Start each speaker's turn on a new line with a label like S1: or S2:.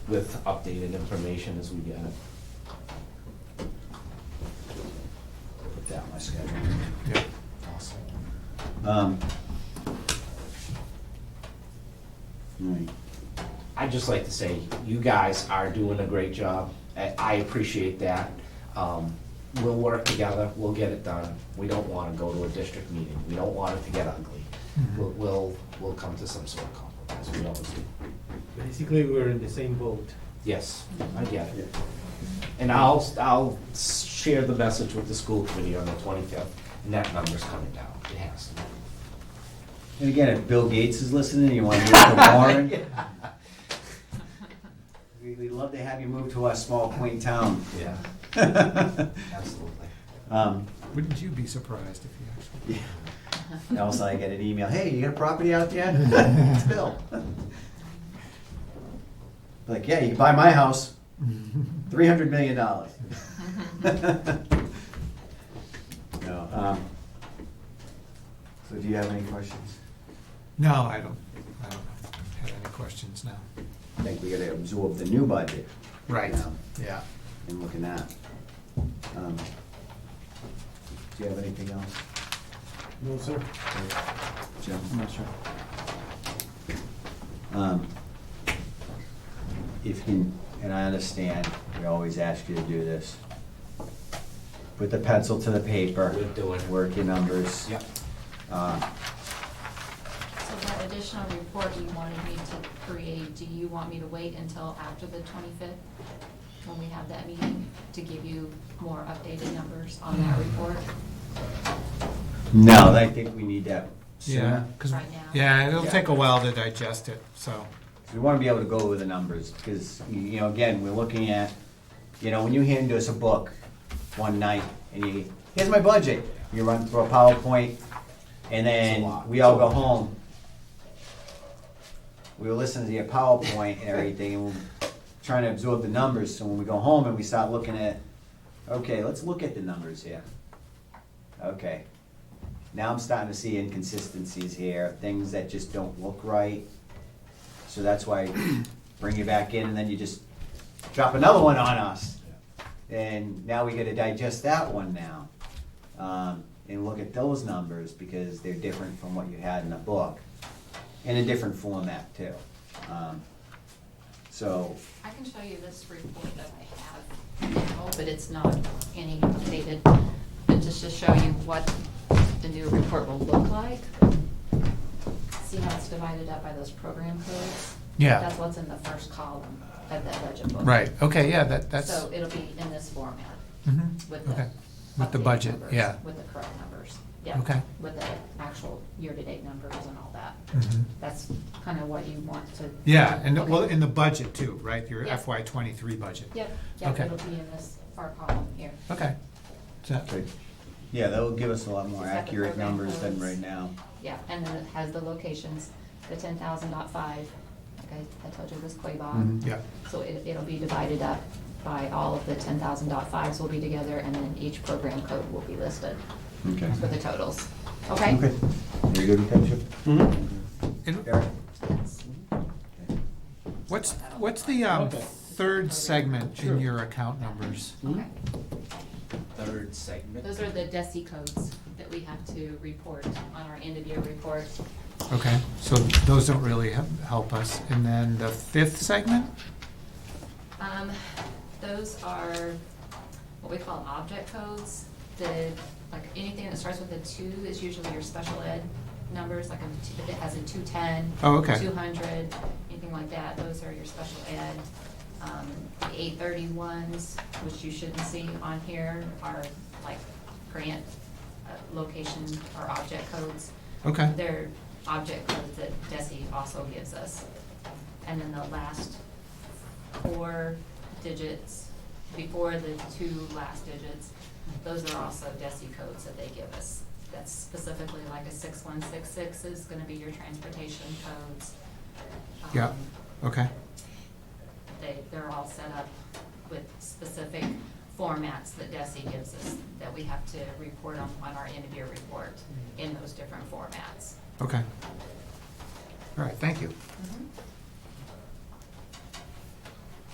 S1: with updated information as we get it.
S2: Put down my schedule.
S3: Yeah.
S2: Awesome. Um, Right.
S1: I'd just like to say, you guys are doing a great job. I, I appreciate that. Um, we'll work together, we'll get it done. We don't wanna go to a district meeting, we don't want it to get ugly. We'll, we'll, we'll come to some sort of compromise, we always do.
S4: Basically, we're in the same boat.
S1: Yes, I get it. And I'll, I'll share the message with the school committee on the twenty-fifth, and that number's coming down, it has to.
S2: And again, if Bill Gates is listening, you want to move to Warren? we- We'd love to have you move to our small quaint town.
S1: Yeah, absolutely.
S2: Um,
S3: Wouldn't you be surprised if you
S2: Else I get an email, hey, you got a property out there? It's Bill. Like, yeah, you can buy my house,
S3: actually?
S2: three hundred million dollars. No, um, so do you have any questions?
S3: No, I don't, I don't have any questions now.
S2: I think we gotta absorb the new budget
S3: Right,
S2: Yeah.
S3: yeah.
S2: and look at that. Um, Do you have anything else?
S4: No, sir.
S2: Jim? I'm not sure. Um, If you, and I understand, we always ask you to do this, put the pencil to the paper.
S1: We're doing it.
S2: Work your numbers.
S1: Yep.
S2: Uh,
S5: So that additional report you wanted me to create, do you want me to wait until after the twenty-fifth? When we have that meeting to give you more updated numbers on that report?
S2: No, I think we need that
S3: Yeah,
S2: sooner.
S3: 'cause-
S5: Right now.
S3: yeah, it'll
S2: Yeah.
S3: take a while to digest it, so,
S2: We want to be able to go over the numbers, because, you know, again, we're looking at, you know, when you hand us a book one night, and you, here's my budget, you run through a PowerPoint, and
S1: It's a
S2: then
S1: lot.
S2: we all go home. We were listening to your PowerPoint and everything, and we're trying to absorb the numbers, so when we go home and we start looking at, okay, let's look at the numbers here. Okay, now I'm starting to see inconsistencies here, things that just don't look right. So that's why I bring you back in and then you just drop another one on us. And now we gotta digest that one now. Um, and look at those numbers because they're different from what you had in the book. In a different format too. Um, So,
S5: I can show you this report that I have now, but it's not any updated, but just to show you what the new report will look like. See how it's divided up by those program codes?
S3: Yeah.
S5: That's what's in the first column of that budget book.
S3: right, okay, yeah, that, that's,
S5: So it'll be in this format
S3: Mhm,
S5: with the.
S3: okay. With the
S5: updated
S3: budget,
S5: numbers,
S3: yeah.
S5: With the correct numbers, yeah.
S3: Okay.
S5: With the actual year-to-date numbers and all that.
S3: Mhm.
S5: That's kind of what you want to.
S3: Yeah, and,
S5: Okay.
S3: well, in the budget too, right, your
S5: Yeah.
S3: FY twenty-three budget?
S5: Yep, yep,
S3: Okay.
S5: it'll be in this far column here.
S3: Okay. So-
S2: but, yeah, that'll give us a lot more
S5: Is that the
S2: accurate
S5: program
S2: numbers than
S5: codes?
S2: right now.
S5: Yeah, and then it has the locations, the ten thousand dot five, like I, I told you, this Quabog.
S3: Mhm, yeah.
S5: So it, it'll be divided up by all of the ten thousand dot fives will be together, and then each program code will be listed
S2: Okay.
S5: for the totals, okay?
S2: Okay. Very good with
S3: And
S2: that, Chip?
S5: That's-
S2: Okay.
S3: what's, what's the, um,
S1: Okay.
S3: third segment in your account numbers?
S5: Okay,
S1: Third segment.
S5: those are the DESI codes that we have to report on our end of year report.
S3: Okay, so those don't really he- help us. And then the fifth segment?
S5: Um, those are what we call object codes. The, like, anything that starts with a two is usually your special ed numbers, like a two- if it has a two-ten.
S3: Oh, okay.
S5: Two-hundred, anything like that, those are your special ed. Um, the eight-thirty ones, which you shouldn't see on here, are like grant, uh, location or object codes.
S3: Okay.
S5: They're object codes that Desi also gives us. And then the last four digits, before the two last digits, those are also Desi codes that they give us. That's specifically like a six one six six is gonna be your transportation codes.
S3: Yeah,
S5: Um,
S3: okay,
S5: They, they're all set up with specific formats that Desi gives us, that we have to report on, on our end of year report in those different formats.
S3: okay. All right, thank you.
S5: Mhm.